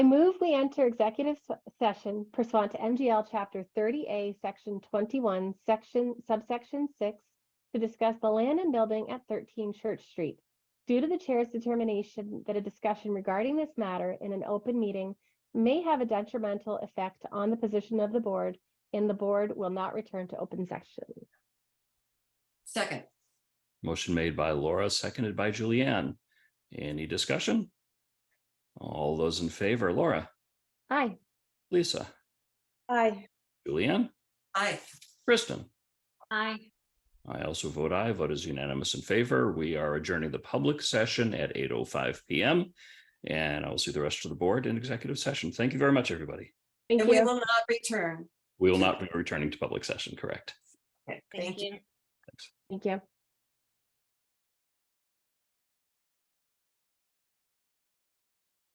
I move we enter executive se- session pursuant to MGL Chapter 30A, Section 21, Section subsection 6, to discuss the land and building at 13 Church Street. Due to the chair's determination that a discussion regarding this matter in an open meeting may have a detrimental effect on the position of the board, and the board will not return to open session. Second, Motion made by Laura, seconded by Julianne. Any discussion? All those in favor, Laura, Aye. Lisa, Aye. Julianne, aye. Kristen. Aye. I also vote aye. Vote is unanimous in favor. We are adjourning the public session at 8:05 PM. And I will see the rest of the board in executive session. Thank you very much, everybody. Thank And we you. will not return. We will not be returning to public session, correct? Okay, Thank you. Thank you.